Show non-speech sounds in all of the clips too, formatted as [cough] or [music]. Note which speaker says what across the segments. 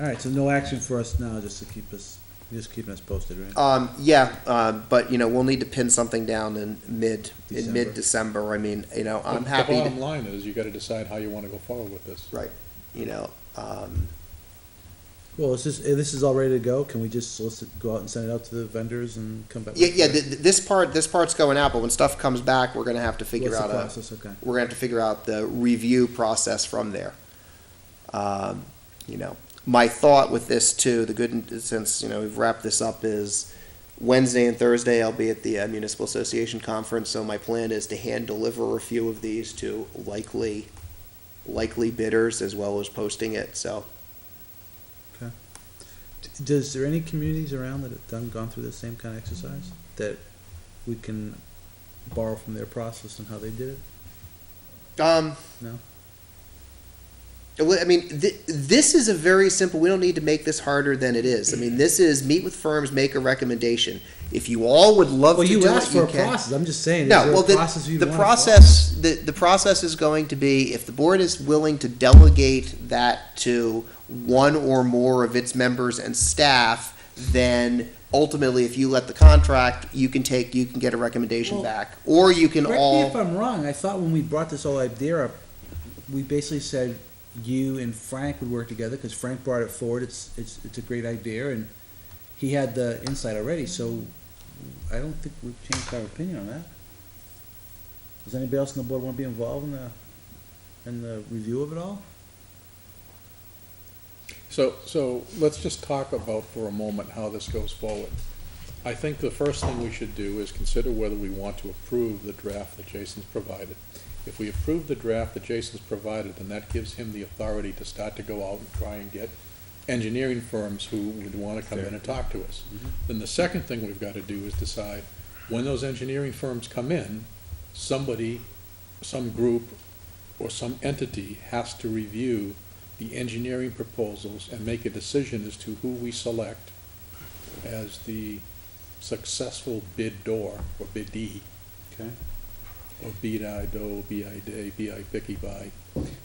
Speaker 1: All right, so no action for us now, just to keep us, just keeping us posted, right?
Speaker 2: Um, yeah, uh, but you know, we'll need to pin something down in mid, in
Speaker 1: December.
Speaker 2: mid-December. I mean, you know, I'm
Speaker 3: The
Speaker 2: happy. to-
Speaker 3: bottom line is, you gotta decide how you wanna go forward with this.
Speaker 2: Right, you know, um,
Speaker 1: Well, is this, eh, this is all ready to go, can we just solicit, go out and send it out to the vendors and come back?
Speaker 2: yeah, yeah, th- th- this part, this part's going out, but when stuff comes back, we're gonna have to figure
Speaker 1: What's the
Speaker 2: out uh, a,
Speaker 1: process, okay.
Speaker 2: we're gonna have to figure out the review process from there. Um, you know, my thought with this too, the good, since, you know, we've wrapped this up is Wednesday and Thursday, I'll be at the uh, Municipal Association Conference, so my plan is to hand deliver a few of these to likely, likely bidders as well as posting it, so.
Speaker 1: D- Does, there any communities around that have done, gone through the same kind of exercise? That we can borrow from their process and how they did it?
Speaker 2: Um.
Speaker 1: No?
Speaker 2: Well, I mean, th- this is a very simple. We don't need to make this harder than it is. I mean, this is meet with firms, make a recommendation. If you all would love
Speaker 1: Well,
Speaker 2: to
Speaker 1: you
Speaker 2: do
Speaker 1: asked
Speaker 2: it,
Speaker 1: for
Speaker 2: you
Speaker 1: a
Speaker 2: can.
Speaker 1: process, I'm just saying, is
Speaker 2: No,
Speaker 1: there
Speaker 2: well,
Speaker 1: a
Speaker 2: the,
Speaker 1: process you
Speaker 2: the
Speaker 1: want?
Speaker 2: process the, the process is going to be if the board is willing to delegate that to one or more of its members and staff, then ultimately, if you let the contract, you can take you can get a recommendation
Speaker 1: Well,
Speaker 2: back, or you can
Speaker 1: Correct
Speaker 2: all
Speaker 1: me if I'm wrong. I thought when we brought this whole idea up, we basically said you and Frank would work together because Frank brought it forward. It's it's it's a great idea, and he had the insight already. So I don't think we've changed our opinion on that. Does anybody else on the board want to be involved in the in the review of it all?
Speaker 3: So, so let's just talk about for a moment how this goes forward. I think the first thing we should do is consider whether we want to approve the draft that Jason's provided. If we approve the draft that Jason's provided, then that gives him the authority to start to go out and try and get engineering firms who would wanna come in and talk to us. Then the second thing we've gotta do is decide, when those engineering firms come in, somebody, some group, or some entity has to review the engineering proposals and make a decision as to who we select as the successful bid door, or bidee,
Speaker 1: Okay.
Speaker 3: or bid I do, bid day, bid bicky by.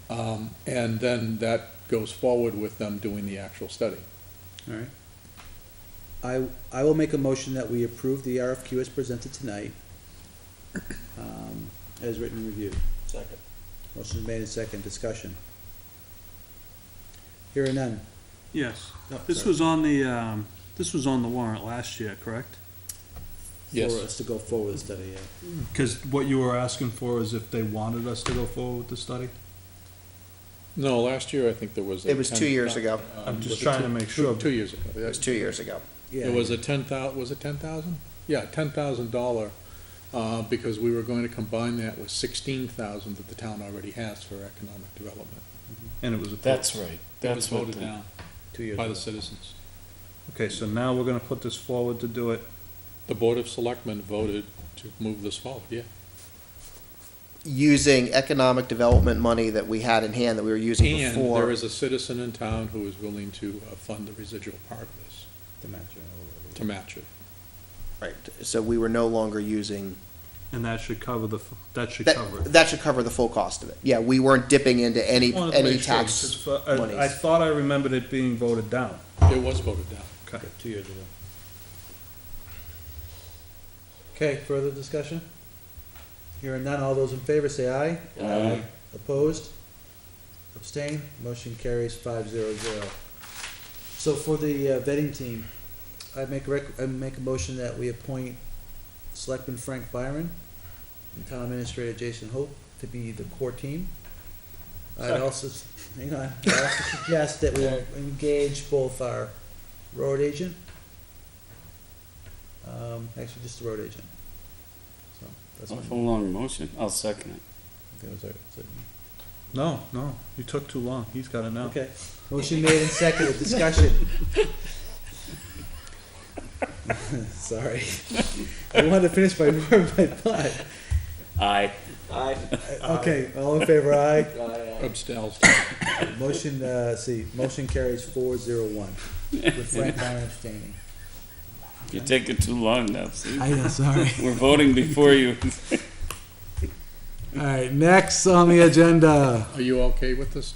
Speaker 3: Um, and then that goes forward with them doing the actual study.
Speaker 1: All right. I, I will make a motion that we approve the RFQ as presented tonight, um, as written and reviewed.
Speaker 4: Second.
Speaker 1: Motion is made and second, discussion. Hearing none.
Speaker 4: Yes, this was on the, um, this was on the warrant last year, correct?
Speaker 3: Yes.
Speaker 1: For us to go forward with the study, yeah.
Speaker 5: Because what you were asking for is if they wanted us to go forward with the study?
Speaker 3: No, last year, I think there was. a
Speaker 2: It was two
Speaker 3: 10
Speaker 2: years ago.
Speaker 3: um,
Speaker 5: I'm
Speaker 3: was
Speaker 5: just
Speaker 3: it
Speaker 5: trying
Speaker 3: two-
Speaker 5: to make
Speaker 3: two-
Speaker 5: sure.
Speaker 3: Two years ago.
Speaker 2: it was two years ago.
Speaker 1: Yeah.
Speaker 3: It was a ten thou, was it ten thousand? Yeah, ten thousand dollar, uh, because we were going to combine that with sixteen thousand that the town already has for economic development.
Speaker 5: And it was a.
Speaker 6: That's right.
Speaker 3: That was
Speaker 6: That's what
Speaker 3: voted
Speaker 6: the-
Speaker 3: down
Speaker 1: Two years
Speaker 3: by the
Speaker 1: ago.
Speaker 3: citizens.
Speaker 5: Okay, so now we're gonna put this forward to do it.
Speaker 3: The Board of Selectmen voted to move this forward, yeah.
Speaker 2: using economic development money that we had in hand that we were using
Speaker 3: And there
Speaker 2: before.
Speaker 3: is a citizen in town who is willing to uh, fund the residual part of this,
Speaker 1: The match,
Speaker 3: to match it.
Speaker 2: Right, so we were no longer using,
Speaker 5: And that should cover the, f- that should
Speaker 2: that,
Speaker 5: cover it.
Speaker 2: that should cover the full cost of it. Yeah, we weren't dipping into any,
Speaker 5: Wanted to
Speaker 2: any
Speaker 5: make sure,
Speaker 2: tax.
Speaker 5: 'cause I- I
Speaker 2: monies.
Speaker 5: thought I remembered it being voted down.
Speaker 3: It was voted down.
Speaker 5: Okay.
Speaker 1: Two years ago. Okay, further discussion? Hearing none, all those in favor say aye. Aye. Opposed? Abstain? Motion carries five zero zero. So for the uh, vetting team, I make rec, I make a motion that we appoint Selectman Frank Byron and Town Administrator Jason Hope to be the core team. I'd also, s- hang on, I also suggest that we engage both our road agent. Um, actually, just the road agent. So, that's my.
Speaker 6: Awful long motion. I'll second
Speaker 1: that was our- so-
Speaker 5: No, no, you took too long. He's got it now.
Speaker 1: Okay, motion made and seconded, discussion. [laughs] Sorry, I wanted to finish my, [laughs] my thought.
Speaker 6: it. Aye.
Speaker 4: Aye.
Speaker 1: Okay, all in favor, aye.
Speaker 3: Abstails.
Speaker 1: Motion, uh, see, motion carries four zero one, with Frank Byron abstaining.
Speaker 6: You're taking too long now, see?
Speaker 1: I know, sorry.
Speaker 6: We're voting before you.
Speaker 1: All right, next on the agenda.
Speaker 3: Are you okay with this?